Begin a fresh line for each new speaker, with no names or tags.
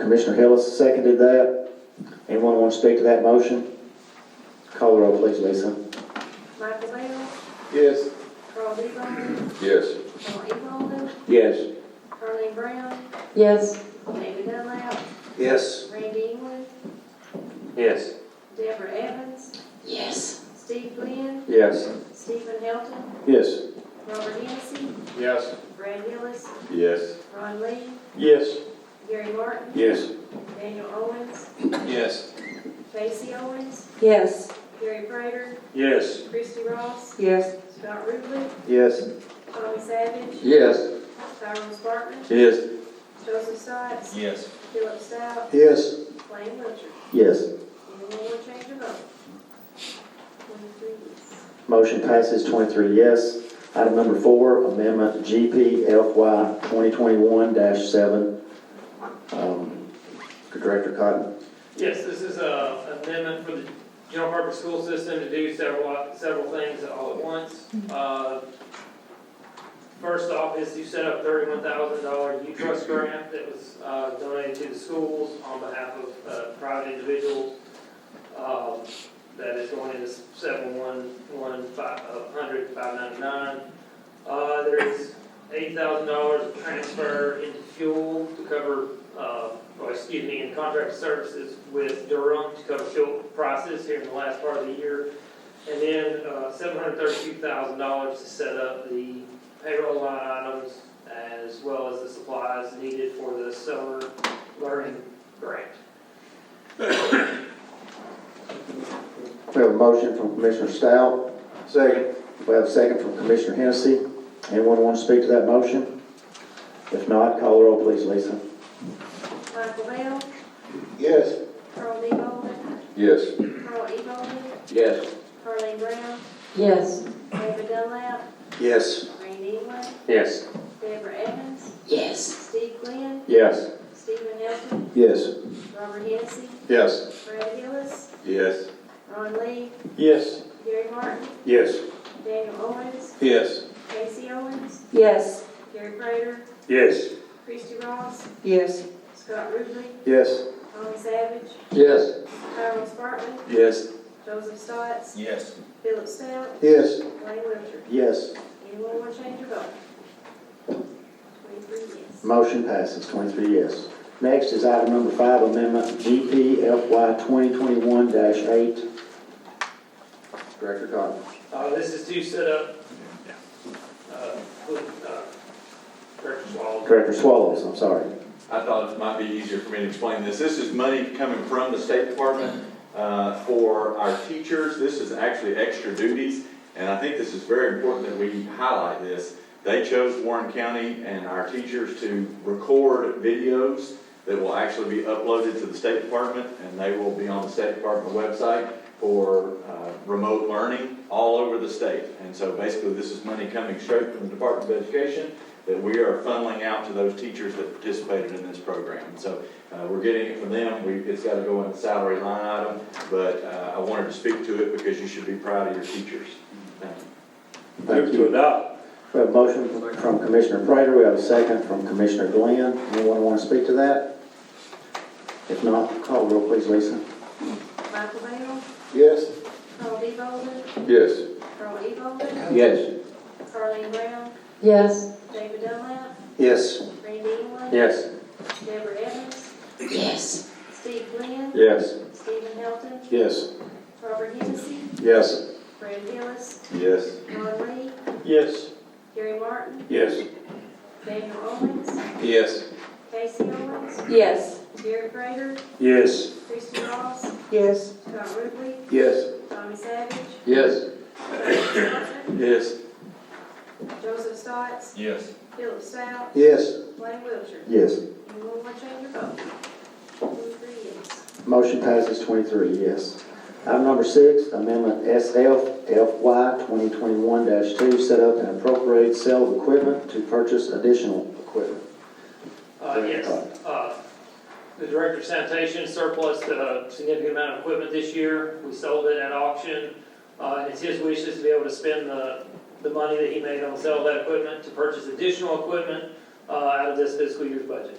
Commissioner Hillis seconded that. Anyone want to speak to that motion? Call the roll, please, Lisa.
Michael Bell,
Yes.
Carl D. Bolden,
Yes.
John E. Bolden,
Yes.
Carleen Brown,
Yes.
David Dunlap,
Yes.
Randy England,
Yes.
Deborah Evans,
Yes.
Steve Glenn,
Yes.
Stephen Helton,
Yes.
Robert Hennessy,
Yes.
Brad Hillis,
Yes.
Ron Lee,
Yes.
Gary Martin,
Yes.
Daniel Owens,
Yes.
Casey Owens,
Yes.
Gary Prater,
Yes.
Christie Ross,
Yes.
Scott Ruble,
Yes.
Tommy Savage,
Yes.
Tyrone Spartman,
Yes.
Joseph Sykes,
Yes.
Philip Stout,
Yes.
Lane Wiltshire.
Yes.
Anyone want to change their vote? Twenty-three yes.
Motion passes twenty-three yes. Item number four, amendment GPFY twenty-twenty-one seven. Um, Director Cotton.
Yes, this is a an amendment for the general purpose school system to do several, several things all at once. Uh, First off is to set up thirty-one thousand dollar U trust grant that was uh, donated to the schools on behalf of uh, private individuals. um, That is going into seven one one five, uh, hundred five ninety-nine. Uh, there is eight thousand dollars of transfer into fuel to cover, uh, or excuse me, in contract services with Durham to cover fuel prices here in the last part of the year. And then, uh, seven hundred thirty-two thousand dollars to set up the payroll line items as well as the supplies needed for the summer learning grant.
We have a motion from Commissioner Stout.
Second.
We have a second from Commissioner Hennessy. Anyone want to speak to that motion? If not, call the roll, please, Lisa.
Michael Bell,
Yes.
Carl D. Bolden,
Yes.
Carl E. Bolden,
Yes.
Carleen Brown,
Yes.
David Dunlap,
Yes.
Randy England,
Yes.
Deborah Evans,
Yes.
Steve Glenn,
Yes.
Stephen Hilton,
Yes.
Robert Hennessy,
Yes.
Brad Hillis,
Yes.
Ron Lee,
Yes.
Gary Martin,
Yes.
Daniel Owens,
Yes.
Casey Owens,
Yes.
Gary Prater,
Yes.
Christie Ross,
Yes.
Scott Ruble,
Yes.
Tommy Savage,
Yes.
Tyrone Spartman,
Yes.
Joseph Stotts,
Yes.
Philip Stout,
Yes.
Lane Wiltshire.
Yes.
Anyone want to change your vote? Twenty-three yes.
Motion passes twenty-three yes. Next is item number five, amendment GPFY twenty-twenty-one eight. Director Cotton.
Uh, this is to set up, uh, with, uh, Director Swallow.
Director Swallows, I'm sorry.
I thought it might be easier for me to explain this. This is money coming from the State Department uh, for our teachers. This is actually extra duties, and I think this is very important that we highlight this. They chose Warren County and our teachers to record videos that will actually be uploaded to the State Department, and they will be on the State Department website for uh, remote learning all over the state. And so basically, this is money coming straight from the Department of Education that we are funneling out to those teachers that participated in this program. And So uh, we're getting it from them, we, it's got to go in the salary line item, but uh, I wanted to speak to it because you should be proud of your teachers. Thank you.
Thank you. We have a motion from Commissioner Prater, we have a second from Commissioner Glenn. Anyone want to speak to that? If not, call the roll, please, Lisa.
Michael Bell,
Yes.
Carl D. Bolden,
Yes.
Carl E. Bolden,
Yes.
Carleen Brown,
Yes.
David Dunlap,
Yes.
Randy England,
Yes.
Deborah Evans,
Yes.
Steve Glenn,
Yes.
Stephen Helton,
Yes.
Robert Hennessy,
Yes.
Brad Hillis,
Yes.
Ron Lee,
Yes.
Gary Martin,
Yes.
Daniel Owens,
Yes.
Casey Owens,
Yes.
Gary Prater,
Yes.
Christie Ross,
Yes.
Scott Ruble,
Yes.
Tommy Savage,
Yes.
Tyrone Spartman,
Yes.
Joseph Stotts,
Yes.
Philip Stout,
Yes.
Lane Wiltshire.
Yes.
Anyone want to change your vote? Twenty-three yes.
Motion passes twenty-three, yes. Item number six, amendment SF FY twenty-twenty-one two, set up and appropriate sale of equipment to purchase additional equipment.
Uh, yes, uh, the director of sanitation surplus a significant amount of equipment this year. We sold it at auction. Uh, and it's his wishes to be able to spend the, the money that he made on the sale of that equipment to purchase additional equipment, uh, out of this fiscal year's budget.